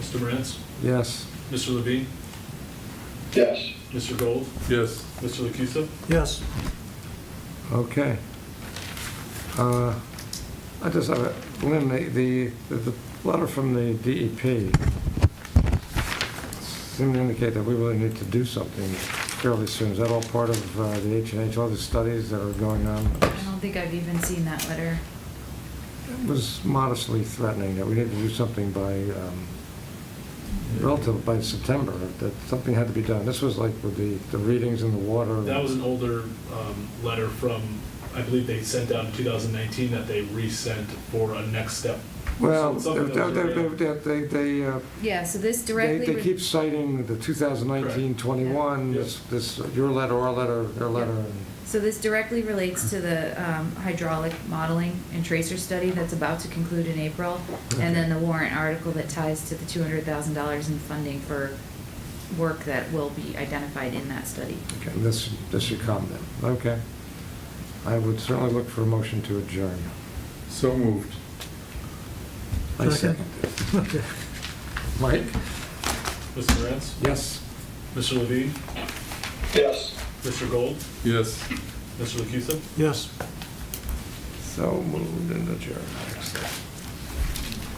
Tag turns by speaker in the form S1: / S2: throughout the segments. S1: Mr. Morantz?
S2: Yes.
S1: Mr. Levine?
S3: yes,
S1: Mr. Gold?
S4: Yes.
S1: Mr. Lucusa?
S5: yes,
S2: Okay. Uh, I just have a, Lynn, the- the, the letter from the DEP seemed to indicate that we really need to do something fairly soon. Is that all part of uh, the H and H, all the studies that are going on?
S6: I don't think I've even seen that letter.
S2: It was modestly threatening that we need to do something by, um, relative, by September, that something had to be done. This was like with the, the readings in the water.
S1: That was an older um, letter from, I believe they sent out in 2019 that they resent for a next step.
S2: Well, they,
S1: Something that was already-
S2: they, they, they, uh,
S6: Yeah, so this
S2: They,
S6: directly.
S2: they
S6: re-
S2: keep citing the 2019-21,
S1: Yeah.
S2: this, this, your letter, our letter, their
S6: Yeah.
S2: letter.
S6: So this directly relates to the um, hydraulic modeling and tracer study that's about to conclude in April. And then the warrant article that ties to the two hundred thousand dollars in funding for work that will be identified in that study.
S2: Okay, this, this should come then, okay. I would certainly look for a motion to adjourn.
S4: So moved.
S2: I
S5: Second.
S2: second it.
S5: okay.
S2: Mike?
S1: Mr. Morantz?
S2: Yes.
S1: Mr. Levine?
S3: yes.
S1: Mr. Gold?
S4: Yes.
S1: Mr. Lucusa?
S5: Yes.
S2: So moved and adjourned. Excellent.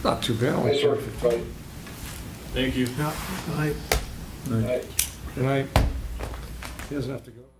S2: Not too bad. only
S3: Nice work,
S2: 4:50.
S3: right,
S1: Thank you.
S5: Yeah, I,
S4: Nice.
S3: right.
S2: Good night. He doesn't have to go.